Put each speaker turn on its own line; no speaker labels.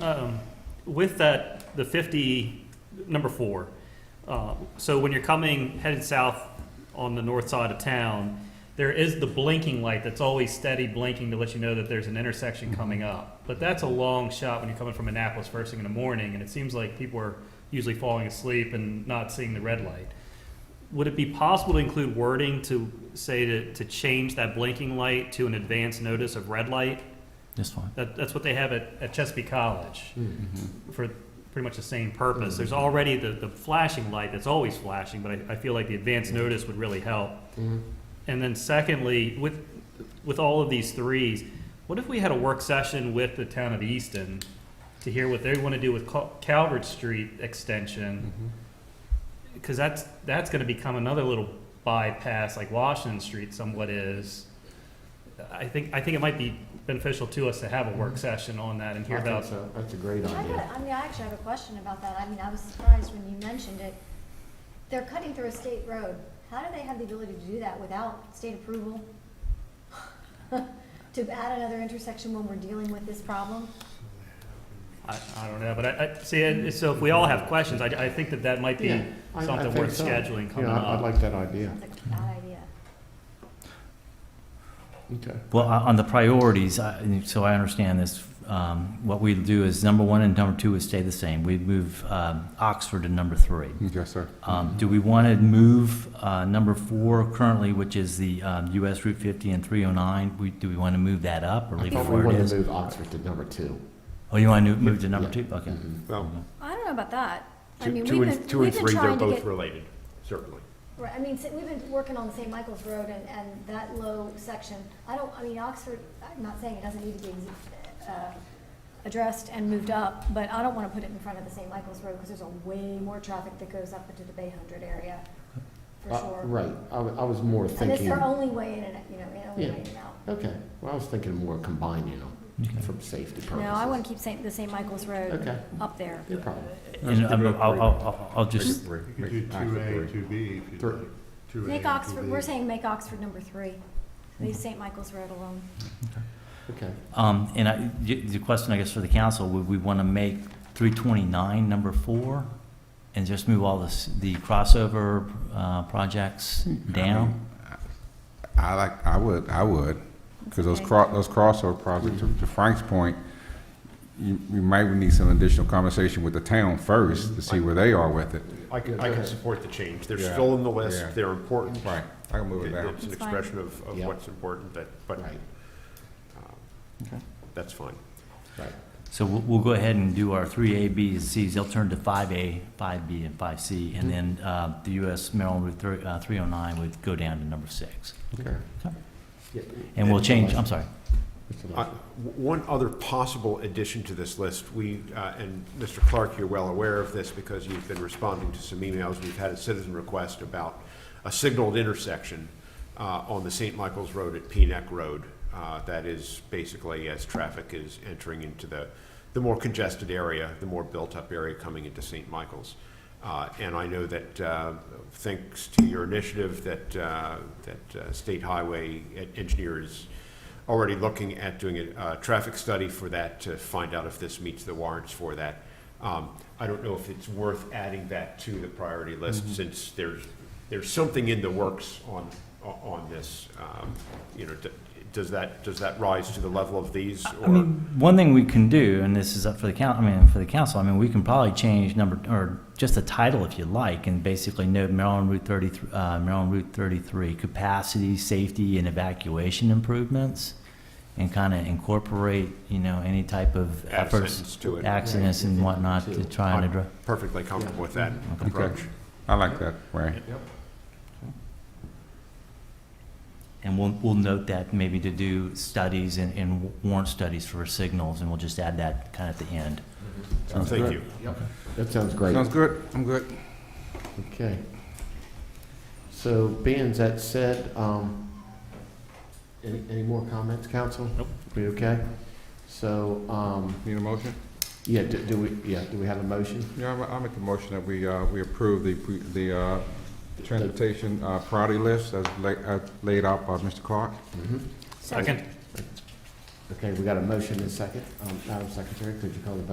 Um, With that, the 50, number four, uh, so when you're coming, headed south on the north side of town, there is the blinking light that's always steady blinking to let you know that there's an intersection coming up. But that's a long shot when you're coming from Annapolis first thing in the morning, and it seems like people are usually falling asleep and not seeing the red light. Would it be possible to include wording to say to, to change that blinking light to an advance notice of red light?
That's fine.
That, that's what they have at, at Chesapeake College for pretty much the same purpose.
Mm-hmm.
There's already the, the flashing light that's always flashing, but I, I feel like the advance
Mm-hmm.
notice would really help. And then secondly, with, with all of these threes, what if we had a work session with the town of Easton to hear what they want to do with Cal- Calvert Street extension?
Mm-hmm.
Because that's, that's going to become another little bypass like Washington Street somewhat is. I think, I think it might be beneficial to us to have a work session on that and hear
Mm-hmm. I think
about
so. That's a great
I
idea.
got, I mean, I actually have a question about that. I mean, I was surprised when you mentioned it. They're cutting through a state road. How do they have the ability to do that without state approval? To add another intersection when we're dealing with this problem?
I, I don't know, but I, I, see, and so if we all have questions, I, I think that that might be
Yeah, I- I
something
think
worth
so.
scheduling coming
Yeah, I- I'd
up.
like that idea.
Sounds like a bad idea.
Okay.
Well, on on the priorities, I- so I understand this, um, what we do is number one and number two would stay the same. We'd move um, Oxford to number three.
Yes, sir.
Um, Do we want to move uh, number four currently, which is the um, US Route 50 and 309? We- Do we want to move that up or
I
leave
thought
it
we
where it
wanted
is?
to move Oxford to number two.
Oh, you want to move to number
Yeah.
two? Okay.
Mhm.
Well,
I don't know about that. I
two
mean,
two
we've
and,
been,
two and
we've been
three, they're
trying to
both
get,
related, certainly.
right, I mean, si- we've been working on the St. Michael's Road and, and that low section. I don't, I mean, Oxford, I'm not saying it doesn't need to be, exi- uh, addressed and moved up, but I don't want to put it in front of the St. Michael's Road because there's a way more traffic that goes up into the Bay Hundred area, for
Uh,
sure.
Right, I, wa- I was more
And it's
thinking,
their only way in and, you know, their only
Yeah.
way in and out.
okay, well, I was thinking more combining them
Okay.
for safety purposes.
No, I want to keep Saint, the St. Michael's Road
Okay,
up there.
no problem.
And I'm- I'll I'll- I'll- I'll just,
Three,
You could do two A, two B if you'd
Three.
like. Two A and
Make
two
Oxford,
B.
we're saying make Oxford number three. Leave St. Michael's Road alone.
Okay,
um, and I- y- the question, I guess, for the council, would we want to make 329 number four? And just move all this, the crossover uh, projects down?
I like, I would, I would, because those
Okay.
cro, those crossover projects, to to Frank's point, you, you might need some additional conversation with the town first to see where they are with it.
I can, I
Okay.
can support the change. They're
Yeah,
still in the
yeah.
list, they're important.
Right, I can move it down.
It's an
That's fine.
expression of, of
Yep.
what's important, that, but
right,
that's fine.
right.
So we'll, we'll go ahead and do our three A, B, and Cs. They'll turn to five A, five B, and five C. And then, uh, the US Maryland Route three, uh, three oh nine would go down to number six.
Okay.
Okay.
Yeah,
And we'll change, I'm sorry.
Mr.
Uh,
Lester.
w- One other possible addition to this list, we, uh, and Mr. Clark, you're well aware of this because you've been responding to some emails. We've had a citizen request about a signaled intersection uh, on the St. Michael's Road at Peenac Road. uh, That is basically as traffic is entering into the, the more congested area, the more built-up area coming into St. Michael's. Uh, And I know that, uh, thanks to your initiative, that, uh, that uh, State Highway Engineer is already looking at doing a uh, traffic study for that to find out if this meets the warrants for that. Um, I don't know if it's worth adding that to the priority
Mm-hmm.
list, since there's, there's something in the works on, on this. Um, You know, d- does that, does that rise to the level of these?
I
or-
mean, one thing we can do, and this is up for the coun, I mean, for the council, I mean, we can probably change number, or just the title if you like, and basically note Maryland Route thirty-three, uh, Maryland Route thirty-three, capacity, safety, and evacuation improvements, and kind of incorporate, you know, any type of
Add a
efforts,
sentence to it.
accidents and whatnot to try and
I'm
address.
Perfectly comfortable with that
Okay.
approach.
Okay. I like that, Ray.
And we'll, we'll note that maybe to do studies and, and warrant studies for signals, and we'll just add that kind of at the end.
Sounds
Thank
good.
you.
That sounds great.
Sounds good, I'm good.
Okay. So being that said, um, any, any more comments, council?
Nope.
We okay? So, um,
Need a motion?
yeah, do, do we, yeah, do we have a motion?
Yeah, I'll- I'll make the motion that we, uh, we approve the, pre- the, uh, transportation, uh, priority list as la, as laid out by Mr. Clark.
Mhm.
Second.
Okay, we got a motion and a second. Um, Madam Secretary, could you call the vote?